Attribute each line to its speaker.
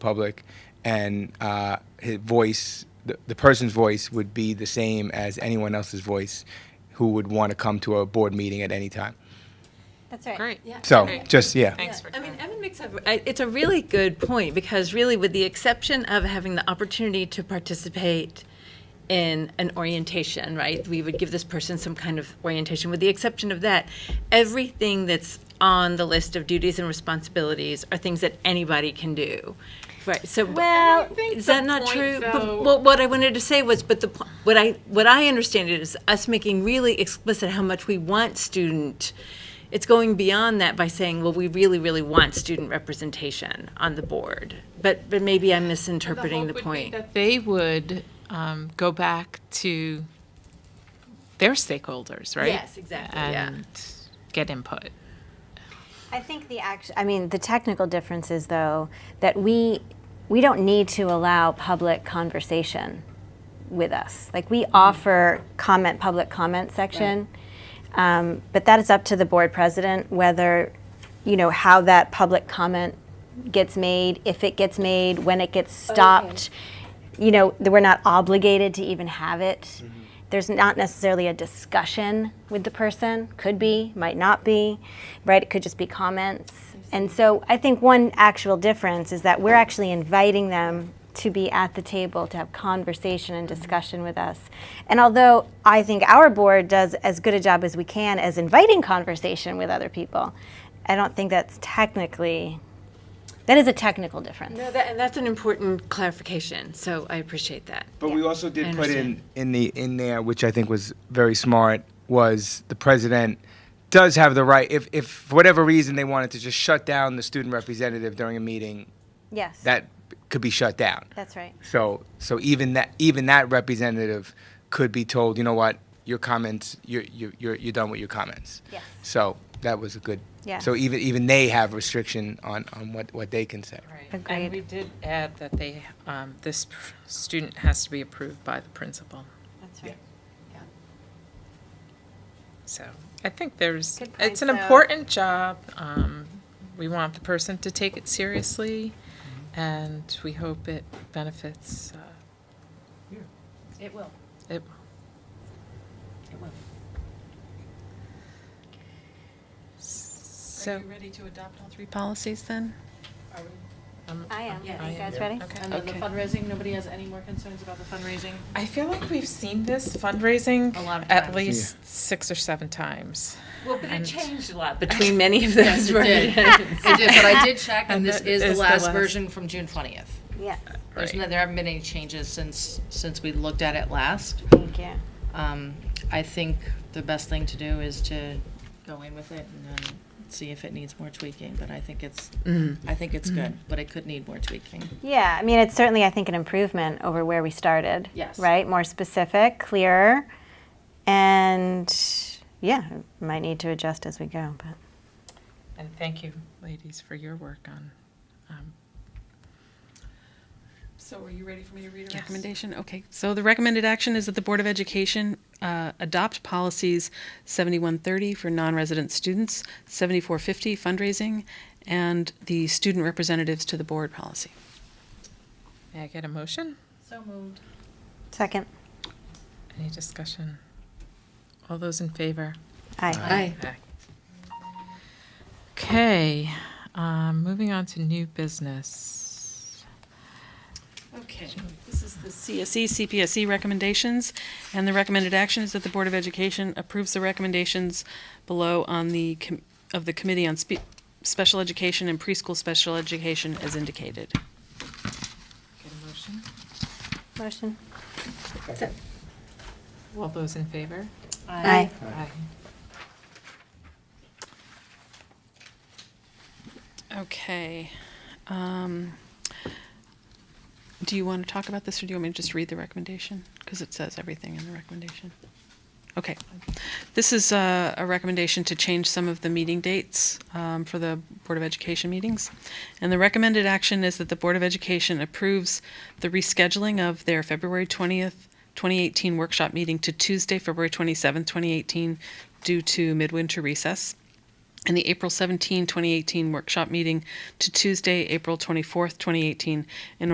Speaker 1: public, and uh, his voice, the, the person's voice, would be the same as anyone else's voice who would want to come to a board meeting at any time.
Speaker 2: That's right.
Speaker 3: Great.
Speaker 4: Yeah.
Speaker 1: So,
Speaker 3: Great.
Speaker 1: just, yeah.
Speaker 3: Thanks
Speaker 4: Yeah,
Speaker 3: for
Speaker 4: I mean,
Speaker 3: clarifying.
Speaker 4: Evan makes a, I- it's a really good point, because really, with the exception of having the opportunity to participate in an orientation, right? We would give this person some kind of orientation. With the exception of that, everything that's on the list of duties and responsibilities are things that anybody can do. Right, so.
Speaker 2: Well,
Speaker 4: Is that
Speaker 3: the
Speaker 4: not
Speaker 3: point,
Speaker 4: true? But-
Speaker 3: though-
Speaker 4: Well, what I wanted to say was, but the, po- what I, what I understand it is us making really explicit how much we want student, it's going beyond that by saying, well, we really, really want student representation on the board. But, but maybe I'm misinterpreting the
Speaker 3: hope would
Speaker 4: point.
Speaker 3: be That they would um, go back to their stakeholders, right?
Speaker 4: Yes, exactly, yeah.
Speaker 3: And get input.
Speaker 2: I think the act, I mean, the technical difference is though that we we don't need to allow public conversation with us. Like we offer comment public comment section, um, but that is up to the board president whether you know how that public comment gets made, if it gets made, when it gets stopped. You know, th- we're not obligated to even have it. There's not necessarily a discussion with the person. Could be, might not be, right? It could just be comments. And so I think one actual difference is that we're actually inviting them to be at the table to have conversation and discussion with us. And although I think our board does as good a job as we can as inviting conversation with other people, I don't think that's technically that is a technical difference.
Speaker 4: No, that, and that's an important clarification, so I appreciate that.
Speaker 1: But we also did
Speaker 4: I
Speaker 1: put in,
Speaker 4: understand.
Speaker 1: in the, in there, which I think was very smart, was the president does have the right, if, if for whatever reason they wanted to just shut down the student representative during a meeting,
Speaker 2: Yes.
Speaker 1: that could be shut down.
Speaker 2: that's right.
Speaker 1: So, so even that, even that representative could be told, you know what, your comments, you're, you're, you're you're done with your comments.
Speaker 2: Yes.
Speaker 1: So that was a good,
Speaker 2: Yes.
Speaker 1: so even, even they have restriction on, on what, what they can say.
Speaker 2: Agreed.
Speaker 3: And we did add that they, um, this pr- student has to be approved by the principal.
Speaker 4: That's right.
Speaker 3: So I think there's,
Speaker 2: Good point,
Speaker 3: it's an
Speaker 2: so-
Speaker 3: important job. Um, We want the person to take it seriously, and we hope it benefits. It will. It will.
Speaker 5: Are
Speaker 3: So,
Speaker 5: you ready to adopt all three policies then?
Speaker 3: um,
Speaker 2: I am.
Speaker 4: Yeah.
Speaker 2: Are you guys ready?
Speaker 3: okay.
Speaker 5: And then the
Speaker 4: Okay.
Speaker 5: fundraising, nobody has any more concerns about the fundraising?
Speaker 3: I feel like we've seen this fundraising
Speaker 5: A lot of
Speaker 3: at
Speaker 5: times.
Speaker 3: least six or seven times.
Speaker 4: Well, but it
Speaker 3: And-
Speaker 4: changed a lot between many of those, right?
Speaker 5: It did, but I did check,
Speaker 3: And
Speaker 5: and this
Speaker 3: that
Speaker 5: is the
Speaker 3: is the
Speaker 5: last
Speaker 3: last-
Speaker 5: version from June twentieth.
Speaker 2: Yes.
Speaker 5: There's
Speaker 3: Right.
Speaker 5: no, there haven't been any changes since, since we looked at it last.
Speaker 2: Thank you.
Speaker 5: Um, I think the best thing to do is to go in with it and then see if it needs more tweaking, but I think it's, I think it's good, but it could need more tweaking.
Speaker 2: Yeah, I mean, it's certainly, I think, an improvement over where we started.
Speaker 5: Yes.
Speaker 2: Right? More specific, clearer, and yeah, might need to adjust as we go, but.
Speaker 3: And thank you, ladies, for your work on, um,
Speaker 5: So are you ready for me to read
Speaker 3: yes.
Speaker 5: recommendation?
Speaker 6: Recommendation, okay. So the recommended action is that the Board of Education uh, adopt policies 7130 for non-resident students, 7450 fundraising, and the student representatives to the board policy.
Speaker 3: May I get a motion?
Speaker 5: So moved.
Speaker 2: Second.
Speaker 3: Any discussion? All those in favor?
Speaker 2: Aye.
Speaker 5: Aye.
Speaker 3: Okay, um, moving on to new business.
Speaker 6: Okay, this is the E, CSE, CPSE recommendations, and the recommended action is that the Board of Education approves the recommendations below on the, com- of the Committee on Spe- Special Education and Preschool Special Education as indicated.
Speaker 3: Get a motion?
Speaker 2: Motion.
Speaker 3: All those in favor?
Speaker 2: Aye.
Speaker 3: Aye.
Speaker 6: Okay. um, Do you want to talk about this, or do you want me to just read the recommendation? Because it says everything in the recommendation. Okay. This is uh, a recommendation to change some of the meeting dates um, for the Board of Education meetings. And the recommended action is that the Board of Education approves the rescheduling of their February 20th, 2018 workshop meeting to Tuesday, February 27th, 2018, due to midwinter recess. and the April 17, 2018 workshop meeting to Tuesday, April 24th, 2018 in